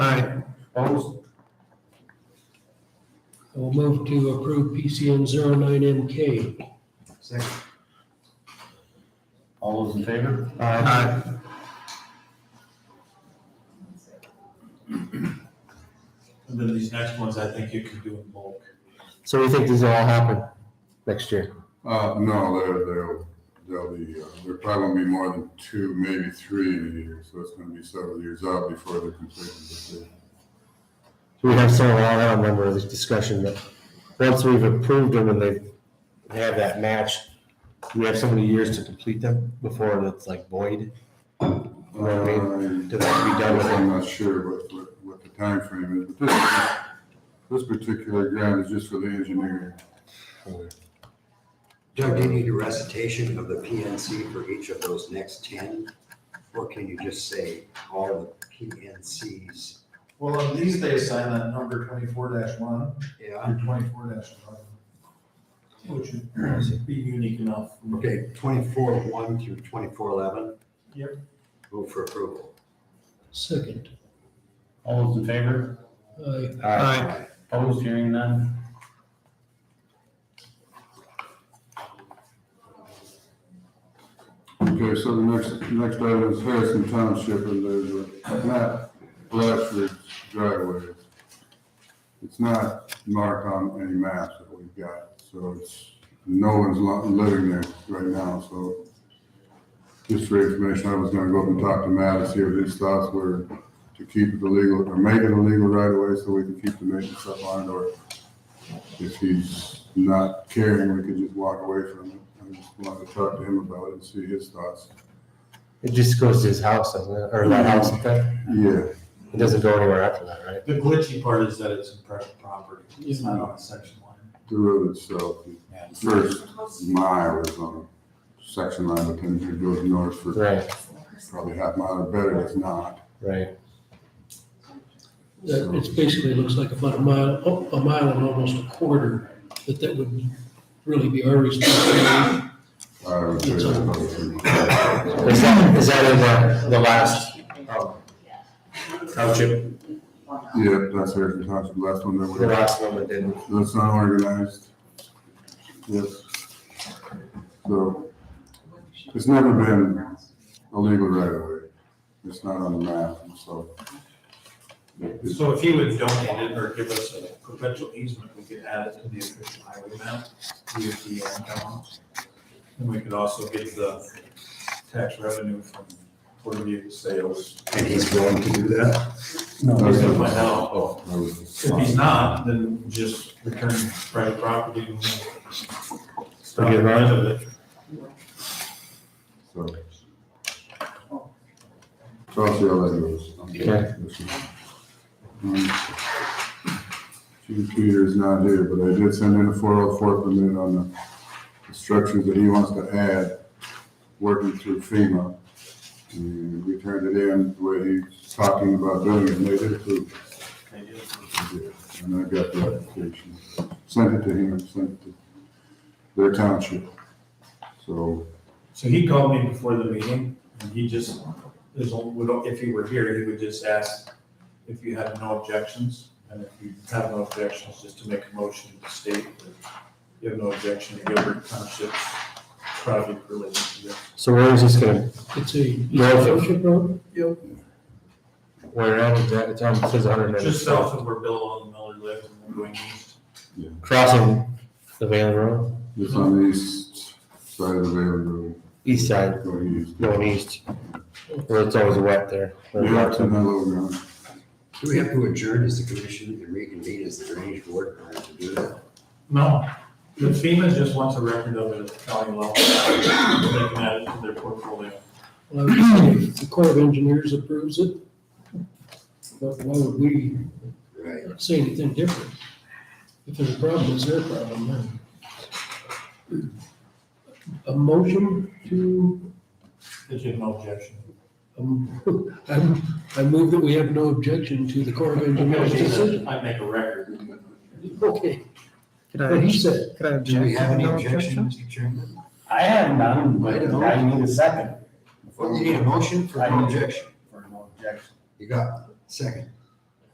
Aye. Opposed? I will move to approve PCN 09MK. Second. All those in favor? Aye. And then these next ones, I think you can do in bulk. So we think these will all happen next year. Uh, no, they're, they'll, they'll be, uh, there probably won't be more than two, maybe three in a year, so it's gonna be several years out before they're completed. But they- We have several, I don't remember this discussion, but once we've approved them and they they have that match, we have so many years to complete them before it's like void. You know what I mean? To be done with Um, I'm it. not sure what, what, what the timeframe is, but this, this particular grant is just for the engineering. Doug, do you need a recitation of the PNC for each of those next ten? Or can you just say all the PNCs? Well, on these, they assign that number twenty-four one Yeah, and twenty-four eleven. Which would be unique enough. okay, twenty-four one through twenty-four eleven? Yep. Move for approval. Second. All those in favor? Aye. Aye. Opposed, hearing none? Okay, so the next, next item is Harrison Township, and there's a map, Blatchford driveway. It's not marked on any maps that we've got, so it's, no one's lo- living there right now, so. Just for information, I was gonna go up and talk to Matt and see what his thoughts were to keep it illegal, or make it illegal right away, so we can keep the maintenance up on it, or if he's not caring, we could just walk away from it. I just wanted to talk to him about it and see his thoughts. It just goes to his house, doesn't it? Or that house, up there. Yeah, it doesn't go anywhere after that, right? The glitchy part is that it's in private property. It's not on a section line. the road itself, Yeah. the first mile is on a section line, but then it goes north for Right, probably half mile or better, it's not. right. That- It's basically, looks like about a mile, oh, a mile and almost a quarter, but that would really be our responsibility. I would say that's about it. Is that, is that in the, the last um, township, Yeah, that's Harrison Township, last one that the was, last one that didn't? that's not organized. Yes. So, it's never been illegal right away. It's not on the map, so. It's- So if you would donate it or give us a perpetual easement, we could add it to the official highway map, DOT on town. And we could also get the tax revenue from Port of View sales. And he's willing to do that? No. that's- Find out. that was- If he's not, then just return private property. and Stop Okay, getting right. rid of it. So. So I'll see how that goes. Okay. Um, Chief Peter's not here, but I did send in a four oh four permit on the instructions that he wants to add, working through FEMA. And we turned it in, the way he's talking about doing it, and they did approve. it. And I got the application, sent it to him, sent it to their township. So So he called me before the meeting, and he just, is, would- if he were here, he would just ask if you had no objections, and if you have no objections, just to make a motion to state that you have no objection to Gilbert Township's project related to this. So where is this gonna, It's a. Yeah. Township road? where at is that? It's on, it says hundred and ninety. Just south of where Bill and Miller live, and then going east. Crossing the Valen Road, It's on the east side of the Valley east side, Road, going east. going east, where it's always wet there. Yeah, it's in that low ground. Do we have to adjourn as the commission and reconvene as the drainage board in order to do that? No, the FEMA just wants a record of it at the county level, they can add it to their portfolio. Well, I would say if Uh, The Corps of Engineers approves it. But why would we Right. say anything different? If there's a problem, it's their problem then. A motion to, Did you have no objection? um, I'm- I move that we have no objection to the Corps of Engineers decision. I make a record. Okay, Could what he said. could I Do we have any objection, Mr. Chairman? I have none, but I need a second Well, you need a motion for I no need- objection. for no objection. You got it. second.